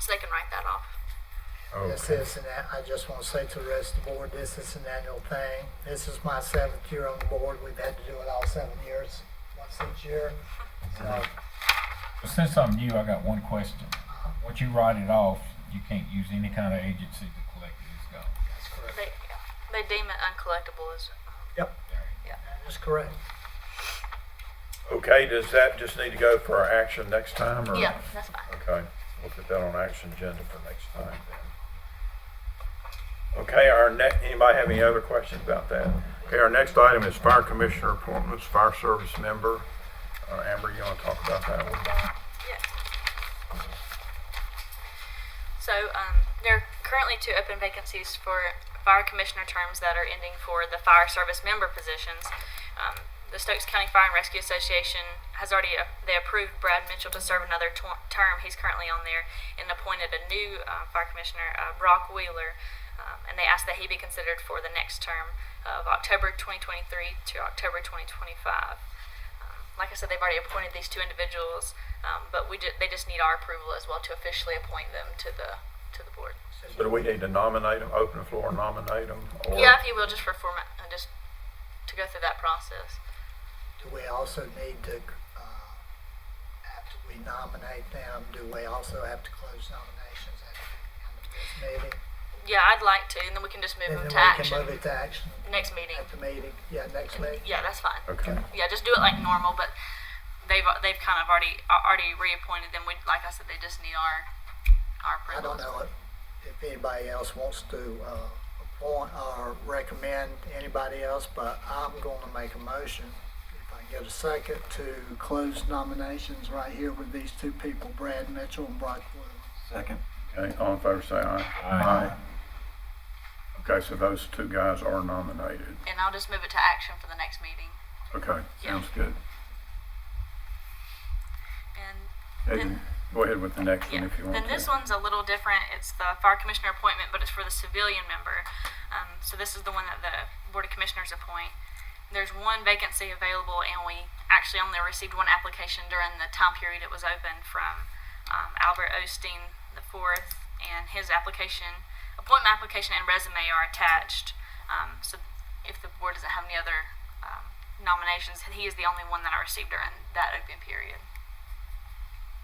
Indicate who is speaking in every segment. Speaker 1: so they can write that off.
Speaker 2: This
Speaker 3: Okay.
Speaker 2: is, and that, I just want to say to the rest of the board, this is an annual thing. This is my seventh year on the board. We've had to do it all seven years, once each year. So,
Speaker 3: Since I'm new, I got one question. Once you write it off, you can't use any kind of agency to collect it. It's gone.
Speaker 2: that's correct.
Speaker 1: They they deem it uncollectible as
Speaker 2: That is correct.
Speaker 4: Okay, does that just need to go for our action next time, or?
Speaker 1: yeah, that's fine.
Speaker 4: Okay, we'll put that on action agenda for next time then. Okay, our next, anybody have any other questions about that? Okay, our next item is fire commissioner appointments, fire service member. Uh, Amber, you want to talk about that one?
Speaker 1: Yeah. So um, there are currently two open vacancies for fire commissioner terms that are ending for the fire service member positions. Um, the Stokes County Fire and Rescue Association has already uh, they approved Brad Mitchell to serve another tw- term. He's currently on there and appointed a new uh, fire commissioner, uh, Brock Wheeler, um, and they asked that he be considered for the next term of October 2023 to October 2025. Um, like I said, they've already appointed these two individuals, um, but we ju- they just need our approval as well to officially appoint them to the to the board.
Speaker 4: So do we need to nominate them, open the floor and nominate them? or-
Speaker 1: Yeah, if you will, just for format, uh, just to go through that process.
Speaker 2: Do we also need to, uh, after we nominate them, do we also have to close nominations at the end of this meeting?
Speaker 1: Yeah, I'd like to, and then we can just move
Speaker 2: And
Speaker 1: them to
Speaker 2: then we can
Speaker 1: action
Speaker 2: move it to action
Speaker 1: next meeting.
Speaker 2: at the meeting, yeah, next meeting.
Speaker 1: Yeah, that's fine.
Speaker 4: Okay,
Speaker 1: Yeah, just do it like normal, but they've they've kind of already a- already reappointed them. We like I said, they just need our our
Speaker 2: I
Speaker 1: approval.
Speaker 2: don't know if, if anybody else wants to, uh, appoint or recommend anybody else, but I'm gonna make a motion, if I can get a second, to close nominations right here with these two people, Brad Mitchell and Brock Wheeler.
Speaker 5: Second.
Speaker 4: okay, all in favor, say aye.
Speaker 3: Aye.
Speaker 4: Okay, so those two guys are nominated.
Speaker 1: And I'll just move it to action for the next meeting.
Speaker 4: Okay, sounds good.
Speaker 1: And
Speaker 4: Hayden, Go ahead with the next one
Speaker 1: Yeah.
Speaker 4: if you want to.
Speaker 1: Then this one's a little different. It's the fire commissioner appointment, but it's for the civilian member. Um, so this is the one that the board of commissioners appoint. There's one vacancy available, and we actually only received one application during the time period it was open from um, Albert Osteen the fourth, and his application, appointment application, and resume are attached. Um, so if the board doesn't have any other um, nominations, he is the only one that I received during that open period.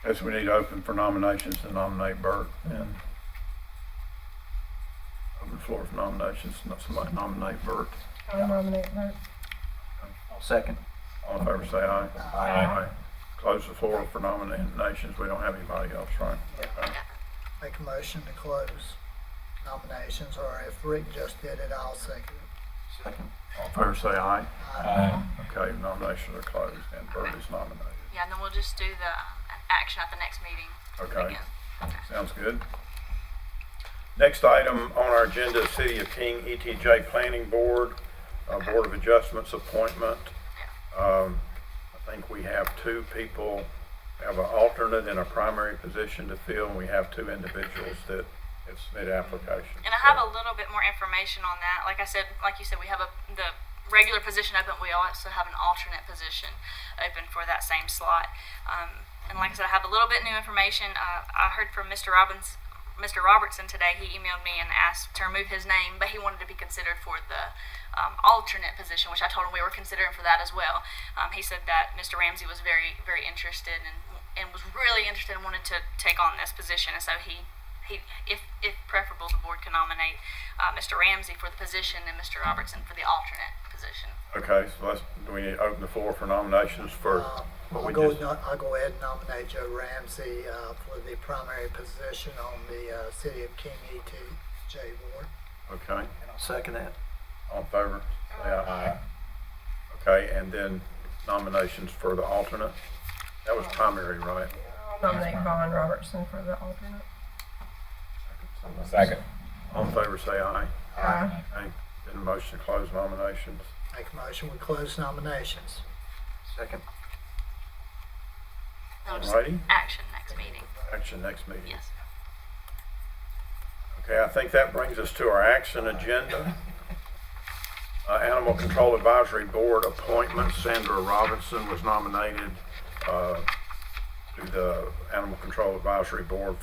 Speaker 4: Guess we need to open for nominations to nominate Bert and open the floor for nominations, not somebody nominate Bert.
Speaker 6: I'll nominate Bert.
Speaker 5: I'll second.
Speaker 4: All in favor, say aye. Close the floor for nominations. We don't have anybody else, right? Okay.
Speaker 2: Make a motion to close nominations, or if Rick just did it, I'll second it.
Speaker 5: Second.
Speaker 4: All in favor, say aye.
Speaker 3: Aye.
Speaker 4: Okay, nominations are closed and Bert is nominated.
Speaker 1: Yeah, and then we'll just do the um, action at the next meeting.
Speaker 4: Okay.
Speaker 1: again.
Speaker 4: Sounds good. Next item on our agenda is City of King ETJ Planning Board, uh, Board of Adjustments appointment. Um, I think we have two people, have an alternate and a primary position to fill, and we have two individuals that have submitted applications.
Speaker 1: And I have a little bit more information on that. Like I said, like you said, we have a, the regular position open. We also have an alternate position open for that same slot. Um, and like I said, I have a little bit new information. Uh, I heard from Mr. Robbins, Mr. Robertson today. He emailed me and asked to remove his name, but he wanted to be considered for the um, alternate position, which I told him we were considering for that as well. Um, he said that Mr. Ramsey was very, very interested and and was really interested and wanted to take on this position, and so he he, if, if preferable, the board can nominate uh, Mr. Ramsey for the position and Mr. Robertson for the alternate position.
Speaker 4: Okay, so let's, do we need to open the floor for nominations for
Speaker 2: Uh,
Speaker 4: what
Speaker 2: I'll
Speaker 4: we
Speaker 2: go,
Speaker 4: just?
Speaker 2: no- I'll go ahead and nominate Joe Ramsey, uh, for the primary position on the, uh, City of King ETJ Board.
Speaker 4: Okay,
Speaker 5: And I'll second that.
Speaker 4: all in favor? Say aye. Okay, and then nominations for the alternate? That was primary, right?
Speaker 6: I'll nominate Vaughn Robertson for the alternate.
Speaker 3: Second.
Speaker 4: All in favor, say aye.
Speaker 6: Aye.
Speaker 4: Aye. Then motion to close nominations.
Speaker 2: Make a motion, we close nominations.
Speaker 5: Second.
Speaker 1: That'll just
Speaker 4: Alrighty,
Speaker 1: action next meeting.
Speaker 4: action next meeting.
Speaker 1: Yes.
Speaker 4: Okay, I think that brings us to our action agenda. Uh, Animal Control Advisory Board appointment, Sandra Robinson was nominated uh, to the Animal Control Advisory Board